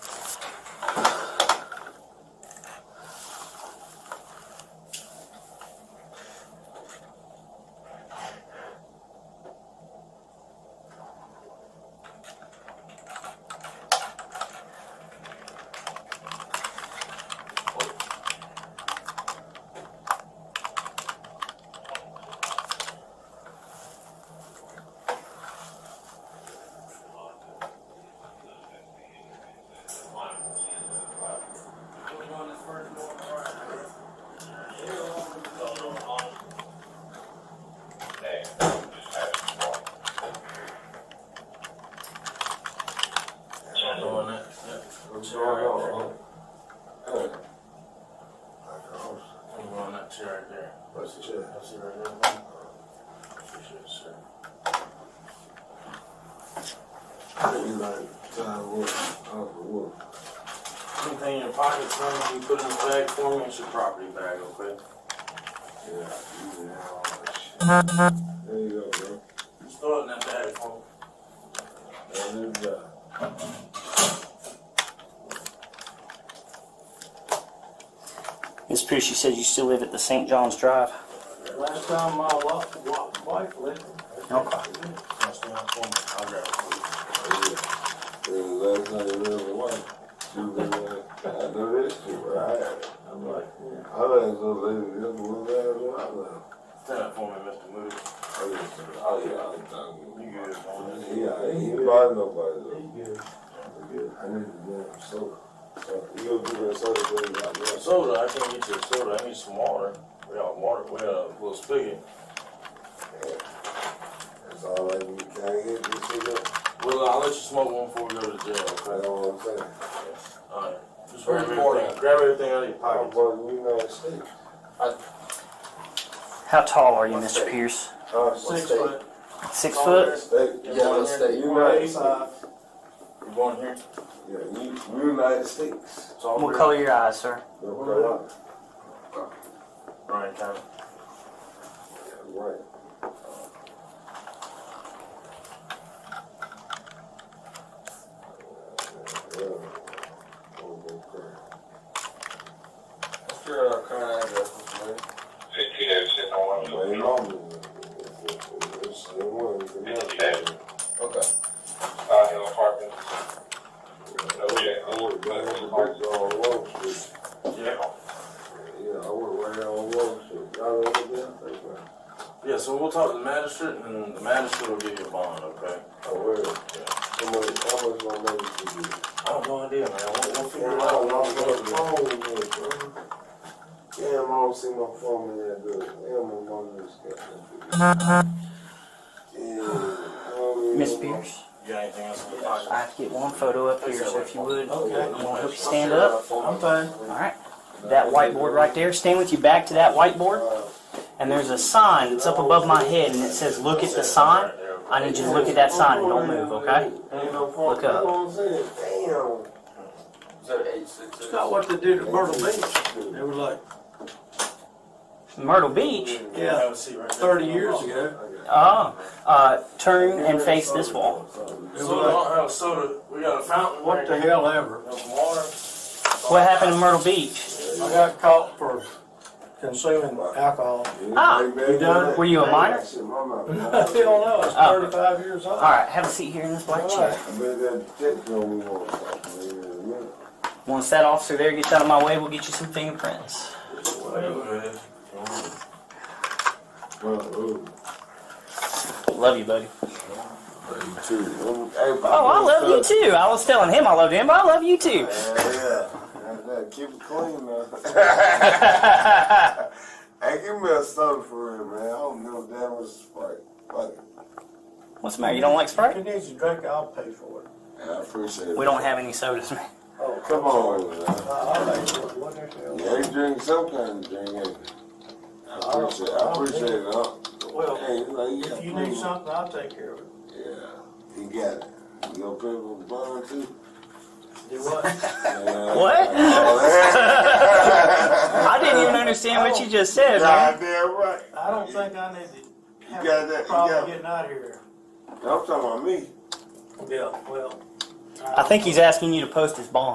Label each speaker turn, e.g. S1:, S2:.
S1: It's all off,
S2: That's
S1: huh? I'm on that chair right there.
S2: the chair.
S1: That's it right there. man. Appreciate it, sir.
S2: You like Ty Wolf, Uncle Wolf.
S1: Anything in your pocket, son, you put in a bag for me, it's your property bag, okay?
S2: Yeah, you know all that shit. There you go, bro.
S1: Just throw it in that bag for me.
S2: That is, uh,
S3: Miss Pierce, you said you still live at the St. John's Drive.
S1: Last time my wa- wa- wife lived.
S3: Okay.
S1: Last time I I'll grab it for you.
S2: yeah. The last time you really won, she was like, I know this shit, but I had it. I'm like,
S1: yeah.
S2: I let some lady, this one last one, I left.
S1: Stand up for me, Mr. Moody.
S2: I just, oh yeah, I'm talking.
S1: You good, man?
S2: Yeah, I ain't inviting nobody though.
S1: You good.
S2: I need a damn soda. So, You gonna do that soda thing out there? So,
S1: Soda, I can't get you a soda, I need some water. We got water, we got a little spigot.
S2: That's all I need. Can I get this shit up?
S1: Well, I'll let you smoke one before we go to jail,
S2: I
S1: okay?
S2: know what I'm saying.
S1: Alright. Just
S2: Where's
S1: grab
S2: the water
S1: everything,
S2: at?
S1: grab everything out of your
S2: I'm
S1: pocket.
S2: from the United States.
S3: How tall are you, Mr. Pierce?
S2: Uh,
S1: Six foot.
S3: Six
S1: Tall
S3: foot?
S1: there.
S2: State,
S1: You born
S2: yeah,
S1: here?
S2: state,
S1: You born
S2: United
S1: east
S2: States.
S1: side? You born here?
S2: Yeah, U- United States.
S1: It's all
S3: What
S1: good.
S3: color your eyes, sir?
S2: North Carolina.
S1: Ryan County.
S2: Yeah, Right. Yeah. Oh, okay.
S4: What's your uh, current address, Mr. Moody?
S5: fifteen oh seven one two.
S2: My mom, it's- it's- it's- it was- it was-
S5: Okay.
S4: Okay.
S5: Star Hill Apartments. Okay.
S2: I work right on the bridge on Wall Street.
S1: Yeah.
S2: Yeah, I work right on Wall Street. Y'all over there? That's right.
S1: Yeah, so we'll talk to the magistrate and the magistrate will give you a bond, okay?
S2: I work. How much, how much my money to do?
S1: I have no idea, man. We'll, we'll figure
S2: Damn,
S1: it
S2: I
S1: out.
S2: don't know
S1: We'll
S2: where the
S1: go to-
S2: phone is, bro. Damn, I don't see my phone in that good. Damn, my mom just got that um, good. Damn, I don't even
S3: Miss
S2: know my-
S3: Pierce,
S1: You got anything else in your
S3: I
S1: pocket?
S3: have to get one photo up here, so if you would,
S1: Okay.
S3: I'm gonna help you stand up.
S1: I'm fine.
S3: All right. That whiteboard right there, stand with your back to that whiteboard. And there's a sign that's up above my head and it says, look at the sign. I need you to look at that sign and don't move, okay?
S2: Ain't no phone.
S3: Look
S2: That's
S3: up.
S2: what I'm saying. Damn.
S4: Zero eight six six.
S6: It's not what they did at Myrtle Beach. They were like
S3: Myrtle Beach?
S6: Yeah.
S1: Have a seat right there.
S6: thirty years ago.
S3: Oh, uh, turn and face this wall.
S1: Soda,
S6: They were
S1: I
S6: like,
S1: don't have soda. We got a fountain.
S6: what the hell ever.
S1: Got some water.
S3: What happened in Myrtle Beach?
S6: I got caught for consuming alcohol.
S3: Ah,
S2: you
S6: done?
S3: Were you a minor?
S2: I
S6: I still
S2: bet
S6: don't know, I was
S3: Oh.
S6: thirty-five years old.
S3: All right, have a seat here in this black chair.
S2: that dick don't move on top of me in a minute.
S3: Once that officer there gets out of my way, we'll get you some fingerprints.
S1: Whatever.
S2: Well, oh, ooh.
S3: Love you, buddy.
S2: You too. Everybody
S3: Oh, I love you
S2: knows
S3: too. I was telling him I loved him, but I love you too.
S2: that. Yeah, yeah. That's it. Keep it clean, man. Hey, give me a soda for real, man. I don't give a damn what's Sprite. Fuck it.
S3: What's the matter? You don't like
S6: If he
S3: Sprite?
S6: needs a drink, I'll pay for it.
S2: Yeah, I appreciate it.
S3: We don't have any sodas, man.
S6: Oh,
S2: Come on, man.
S6: I- I'll pay for it, what the hell.
S2: Yeah, you drink some kind of drink, ain't you? I appreciate it. I appreciate it, huh?
S6: Well,
S2: Hey, like, yeah,
S6: If you need
S2: cool.
S6: something, I'll take care of it.
S2: Yeah, he got it. You gonna pay for the bond too?
S6: Do what?
S2: Man,
S3: What?
S2: I
S3: I didn't even understand what you just said, man.
S2: God damn right.
S6: I don't think I need to have
S2: got that- you
S6: a
S2: got-
S6: problem getting out here.
S2: I'm talking about me.
S6: Yeah, well.
S3: I think he's asking you to post his bond.